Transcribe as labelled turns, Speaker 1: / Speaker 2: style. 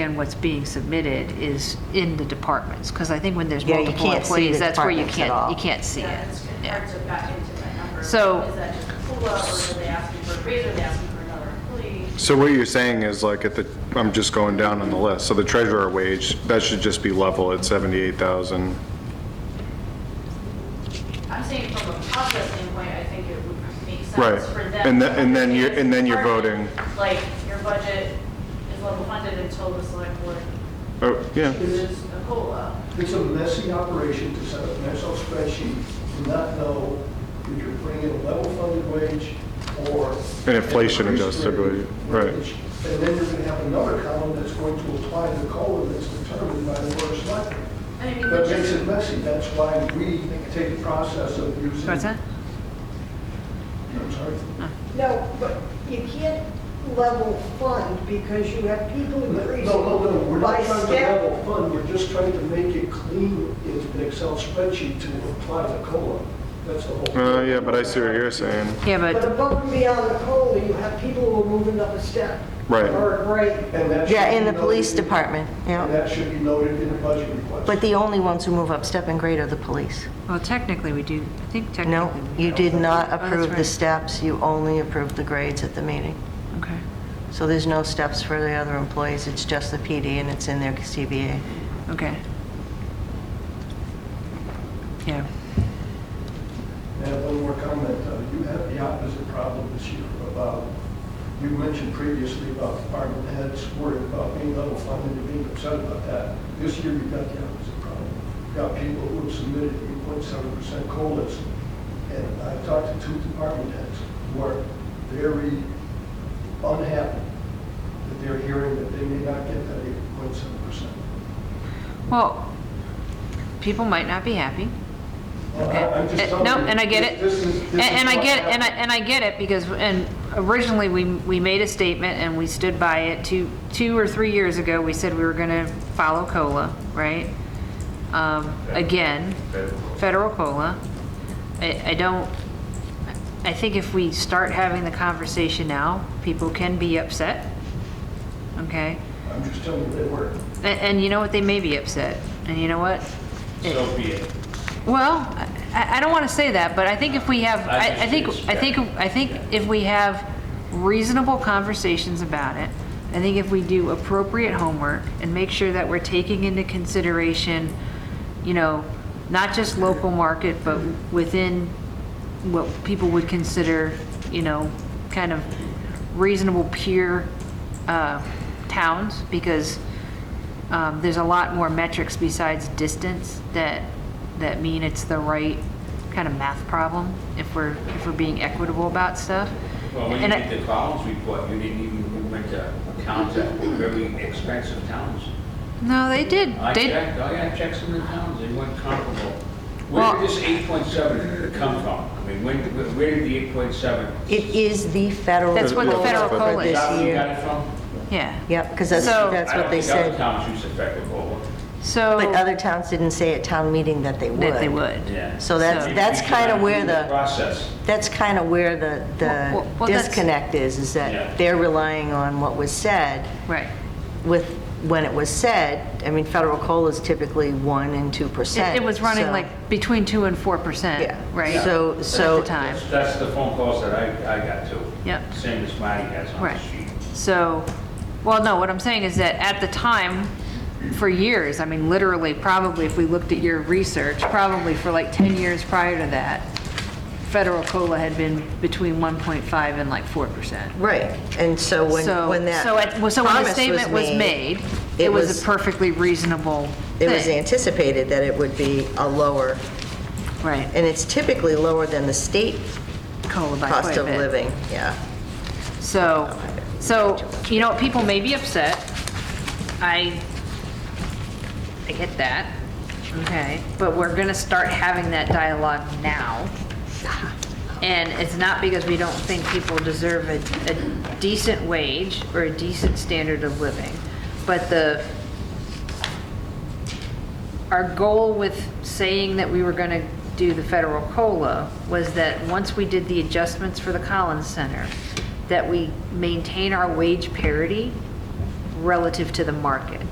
Speaker 1: understand what's being submitted is in the departments, because I think when there's
Speaker 2: Yeah, you
Speaker 1: multiple
Speaker 2: can't see the
Speaker 1: employees, that's where you
Speaker 2: departments at
Speaker 1: can't,
Speaker 2: all.
Speaker 1: you can't see
Speaker 3: Yeah,
Speaker 1: it.
Speaker 3: it's
Speaker 1: Yeah.
Speaker 3: hard to back into that number.
Speaker 1: So-
Speaker 3: Is that just a COLA, or are they asking for a raise, or are they asking for another employee?
Speaker 4: So what you're saying is like at the, I'm just going down on the list, so the treasurer wage, that should just be level at 78,000.
Speaker 3: I'm saying from a process standpoint, I think it would make
Speaker 4: Right.
Speaker 3: sense for them.
Speaker 4: And
Speaker 3: to
Speaker 4: the- and then you're-
Speaker 3: understand
Speaker 4: and then you're
Speaker 3: department, Like, your budget is level funded until the select board
Speaker 4: Oh, yeah.
Speaker 3: uses a COLA.
Speaker 5: It's a messy operation to set up an Excel spreadsheet and not know if you're putting in a level funded wage or.
Speaker 4: An inflation
Speaker 5: increased
Speaker 4: adjusted
Speaker 5: wage,
Speaker 4: wage, right.
Speaker 5: wage. And then you're going to have another column that's going to apply the COLA that's determined by the board of selectmen.
Speaker 3: And I mean,
Speaker 5: That makes
Speaker 3: which,
Speaker 5: it messy. That's why we take the process of using.
Speaker 1: What's that?
Speaker 5: I'm sorry.
Speaker 6: No, but you can't level fund because you have people
Speaker 5: No,
Speaker 6: increasing
Speaker 5: no, no, we're
Speaker 6: by
Speaker 5: not trying to
Speaker 6: step.
Speaker 5: level fund, we're just trying to make it clean in an Excel spreadsheet to apply the COLA. That's the whole.
Speaker 4: Uh, yeah, but I see what you're saying.
Speaker 1: Yeah,
Speaker 6: But
Speaker 1: but,
Speaker 6: above and beyond the COLA, you have people who are moving up a step.
Speaker 4: Right.
Speaker 6: Or a grade.
Speaker 5: And that
Speaker 2: Yeah,
Speaker 5: should
Speaker 2: in
Speaker 5: be
Speaker 2: the police
Speaker 5: noted-
Speaker 2: department,
Speaker 5: And
Speaker 2: yeah.
Speaker 5: that should be noted in the budget request.
Speaker 2: But the only ones who move up step and grade are the police.
Speaker 1: well, technically, we do, I think technically.
Speaker 2: No,
Speaker 1: we
Speaker 2: you
Speaker 1: do. Oh,
Speaker 5: Oh,
Speaker 2: did not
Speaker 1: that's
Speaker 2: approve the
Speaker 1: right.
Speaker 2: steps, you only approved the grades at the meeting.
Speaker 1: Okay.
Speaker 2: So there's no steps for the other employees, it's just the PD and it's in their CBA.
Speaker 1: Okay. Yeah.
Speaker 5: And one more comment, uh, you have the opposite problem this year about, you mentioned previously about department heads worried about being level funded and being upset about that. This year, you've got the opposite problem. You've got people who have submitted 8.7% COLAs, and I've talked to two department heads who are very unhappy that they're hearing that they may not get that 8.7%.
Speaker 1: Well, people might not be happy.
Speaker 5: Well, I- I'm just
Speaker 1: Uh,
Speaker 5: telling
Speaker 1: No,
Speaker 5: you,
Speaker 1: and I get it.
Speaker 5: this- this is-
Speaker 1: And
Speaker 5: this
Speaker 1: and
Speaker 5: is
Speaker 1: I
Speaker 5: what
Speaker 1: get, and I,
Speaker 5: happened.
Speaker 1: and I get it, because, and originally, we, we made a statement and we stood by it. Two, two or three years ago, we said we were gonna follow COLA, right? Um, again, federal COLA. I, I don't, I think if we start having the conversation now, people can be upset, okay?
Speaker 5: I'm just telling you, they were.
Speaker 1: A- And you know what, they may be upset, and you know what?
Speaker 7: So be it.
Speaker 1: Well, I, I don't want to say that, but I think if we have, I, I think, I think, I think if we have reasonable conversations about it, I think if we do appropriate homework and make sure that we're taking into consideration, you know, not just local market, but within what people would consider, you know, kind of reasonable peer, uh, towns, because, um, there's a lot more metrics besides distance that, that mean it's the right kind of math problem if we're, if we're being equitable about stuff.
Speaker 7: Well, when you
Speaker 1: And I-
Speaker 7: did the Collins report, you didn't even went to towns that were very expensive towns.
Speaker 1: No, they did.
Speaker 7: I
Speaker 1: They,
Speaker 7: checked, I got checks in the towns, they weren't comparable. Where
Speaker 1: Well-
Speaker 7: did this 8.7 come from? I mean, when, where- where did the 8.7?
Speaker 2: It is the federal.
Speaker 1: That's what the
Speaker 2: COLA
Speaker 1: federal
Speaker 2: for
Speaker 1: COLA
Speaker 7: Is
Speaker 2: this
Speaker 7: that where you
Speaker 2: year.
Speaker 7: got it from?
Speaker 1: yeah.
Speaker 2: Yep, because that's,
Speaker 1: So-
Speaker 2: that's what they
Speaker 7: I don't think
Speaker 2: said.
Speaker 7: other towns use effective COLA.
Speaker 1: So,
Speaker 2: But other towns didn't say at town meeting that they would.
Speaker 1: that they would.
Speaker 7: Yeah.
Speaker 2: So that's,
Speaker 1: So-
Speaker 2: that's kind of where the.
Speaker 7: Process.
Speaker 2: That's kind of where the,
Speaker 1: Well,
Speaker 2: the
Speaker 1: well, that's-
Speaker 2: disconnect is, is
Speaker 7: Yeah.
Speaker 2: that they're relying on what was said
Speaker 1: Right.
Speaker 2: with, when it was said, I mean, federal COLA is typically 1% and 2%.
Speaker 1: It it was running
Speaker 2: so-
Speaker 1: like between two and four percent,
Speaker 2: Yeah.
Speaker 1: right?
Speaker 2: So- so-
Speaker 1: At the time,
Speaker 7: That's- That's the phone calls that I, I got too.
Speaker 1: Yep.
Speaker 7: Same as Marty has on the
Speaker 1: right.
Speaker 7: sheet.
Speaker 1: So, well, no, what I'm saying is that at the time, for years, I mean, literally, probably if we looked at your research, probably for like 10 years prior to that, federal COLA had been between 1.5 and like 4%.
Speaker 2: Right, and so when,
Speaker 1: So,
Speaker 2: when that
Speaker 1: so at- well, so when
Speaker 2: promise
Speaker 1: the
Speaker 2: was
Speaker 1: statement was made, it was a perfectly reasonable
Speaker 2: It was
Speaker 1: thing.
Speaker 2: anticipated that it would be a lower,
Speaker 1: Right,
Speaker 2: and it's typically lower than the state
Speaker 1: COLA by quite
Speaker 2: cost
Speaker 1: a
Speaker 2: of
Speaker 1: bit.
Speaker 2: living, yeah.
Speaker 1: So, so, you know, people may be upset. I, I get that, okay? But we're gonna start having that dialogue now. And it's not because we don't think people deserve a, a decent wage or a decent standard of living. But the, our goal with saying that we were going to do the federal COLA was that once we did the adjustments for the Collins Center, that we maintain our wage parity relative to the market.